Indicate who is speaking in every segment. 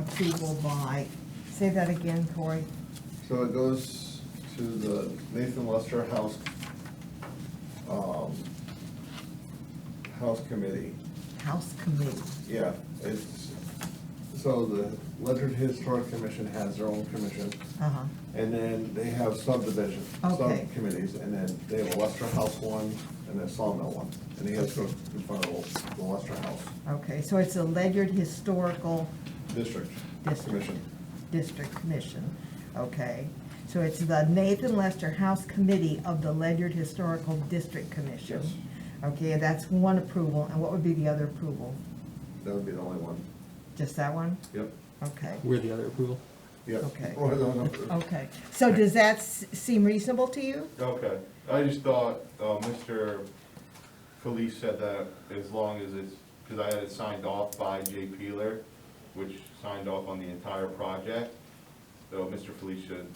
Speaker 1: approval by, say that again, Corey.
Speaker 2: So it goes to the Nathan Lester House, um, House Committee.
Speaker 1: House Committee.
Speaker 2: Yeah, it's, so the Ledger Historic Commission has their own commission,
Speaker 1: Uh-huh,
Speaker 2: and then they have subdivision,
Speaker 1: Okay.
Speaker 2: subcommittees, and then they have a Lester House one, and a Sawmill one, and he has to go in front of the Lester House
Speaker 1: okay, so it's a Ledyard Historical
Speaker 2: District
Speaker 1: District.
Speaker 2: Commission.
Speaker 1: District Commission, okay? So it's the Nathan Lester House Committee of the Ledyard Historical District Commission.
Speaker 2: Yes.
Speaker 1: Okay, that's one approval, and what would be the other approval?
Speaker 2: That would be the only one.
Speaker 1: Just that one?
Speaker 2: Yep,
Speaker 1: Okay,
Speaker 3: We're the other approval?
Speaker 2: yep.
Speaker 1: Okay. Oh.
Speaker 2: Or the number.
Speaker 1: okay. So does that s- seem reasonable to you?
Speaker 4: Okay, I just thought, uh, Mr. Felice said that as long as it's, because I had it signed off by Jay Peeler, which signed off on the entire project. So Mr. Felice should,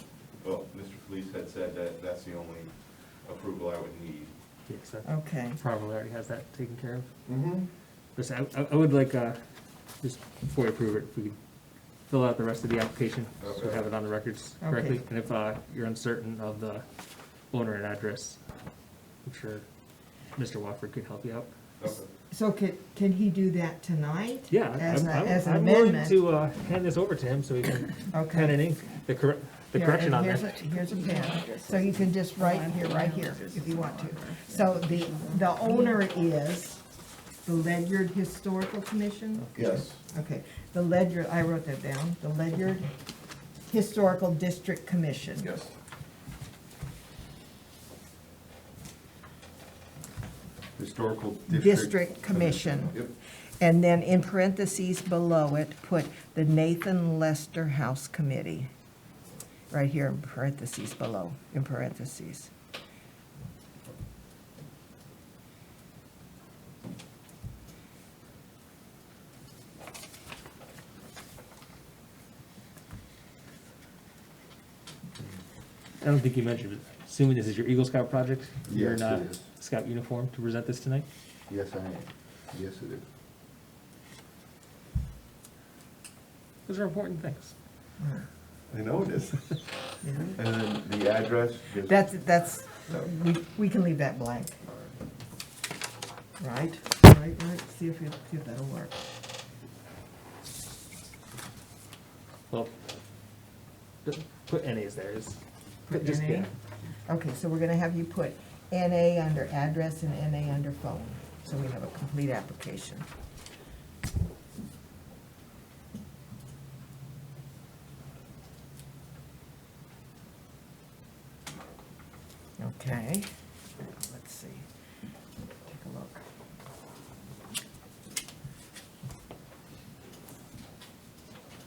Speaker 4: well, Mr. Felice had said that that's the only approval I would need.
Speaker 3: Yeah, 'cause that
Speaker 1: Okay,
Speaker 3: probably already has that taken care of.
Speaker 2: Mm-hmm.
Speaker 3: Listen, I, I- I would like, uh, just before we approve it, if we could fill out the rest of the application, so we
Speaker 4: Okay.
Speaker 3: have it on the records correctly.
Speaker 1: Okay.
Speaker 3: And if, uh, you're uncertain of the owner and address, I'm sure Mr. Wofford could help you out.
Speaker 4: Okay.
Speaker 1: so could, can he do that tonight?
Speaker 3: Yeah,
Speaker 1: As
Speaker 3: I'm,
Speaker 1: a- as
Speaker 3: I'm,
Speaker 1: an
Speaker 3: I'm willing
Speaker 1: amendment?
Speaker 3: to, uh, hand this over to him so he can
Speaker 1: Okay.
Speaker 3: pen and ink the correct, the
Speaker 1: Here,
Speaker 3: correction
Speaker 1: and
Speaker 3: on
Speaker 1: here's
Speaker 3: there.
Speaker 1: a- Here's a pen, so you can just write here, right here, if you want to. So the, the owner is the Ledyard Historical Commission?
Speaker 2: Yes.
Speaker 1: Okay, the Ledyard, I wrote that down, the Ledyard Historical District Commission.
Speaker 2: Yes.
Speaker 4: Historical
Speaker 1: District Commission.
Speaker 2: Yep.
Speaker 1: And then in parentheses below it, put the Nathan Lester House Committee. Right here in parentheses below, in parentheses.
Speaker 3: I don't think you mentioned, it. assuming this is your Eagle Scout project? You're in
Speaker 5: Yes, it
Speaker 3: uh,
Speaker 5: is.
Speaker 3: Scout uniform to present this tonight?
Speaker 5: Yes, I am. Yes, it is.
Speaker 3: Those are important things.
Speaker 5: I know it is. And then the address, just-
Speaker 1: That's, that's, we, we can leave that blank. Right, right, right, see if, it- see if that'll work.
Speaker 3: Well, just put NAs there, is, just,
Speaker 1: NA?
Speaker 3: yeah,
Speaker 1: Okay, so we're gonna have you put NA under address and NA under phone, so we have a complete application. Okay, let's see, take a look.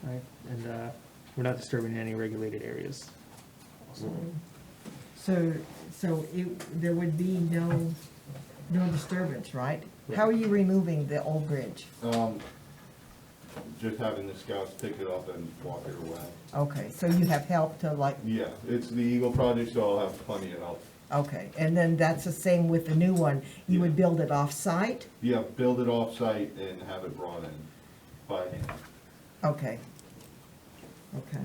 Speaker 3: right, and, uh, we're not disturbing any regulated areas. also.
Speaker 1: So, so it, there would be no, no disturbance, right? How are
Speaker 3: Right.
Speaker 1: you removing the old bridge?
Speaker 4: Um, just having the scouts pick it up and walk it away.
Speaker 1: Okay, so you have help to like,
Speaker 4: Yeah, it's the Eagle project, so I'll have plenty of help.
Speaker 1: okay, and then that's the same with the new one, you would build it off-site?
Speaker 4: Yeah, build it off-site and have it brought in by hand.
Speaker 1: Okay. Okay,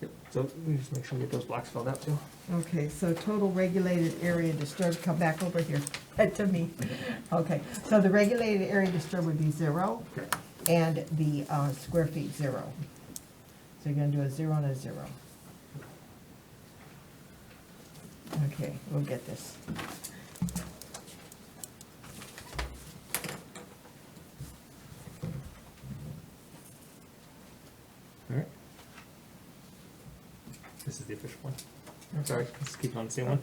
Speaker 3: Yep, So we just make sure we get those blocks filled out too.
Speaker 1: okay, so total regulated area disturbed, come back over here, to me. Okay, so the regulated area disturbed would be zero,
Speaker 3: Correct.
Speaker 1: and the uh, square feet, zero. So you're gonna do a zero and a zero. Okay, we'll get this.
Speaker 3: All right. This is the official one. I'm sorry, let's keep on the same one.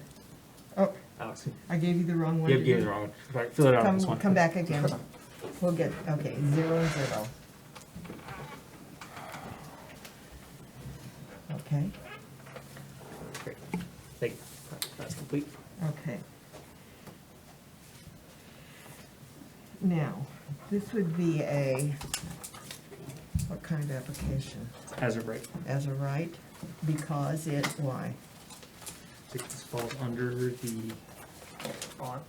Speaker 1: Oh,
Speaker 3: Alex,
Speaker 1: I gave you the wrong one.
Speaker 3: you
Speaker 1: didn't
Speaker 3: gave
Speaker 1: I?
Speaker 3: the wrong one. All right, fill it out on this
Speaker 1: Come,
Speaker 3: one.
Speaker 1: come back again. We'll get, okay, zero, zero. Okay,
Speaker 3: Great. Thank you. That's complete.
Speaker 1: okay. Now, this would be a, what kind of application?
Speaker 3: As of right,
Speaker 1: As a right, because it, why?
Speaker 3: I think this falls under the, on,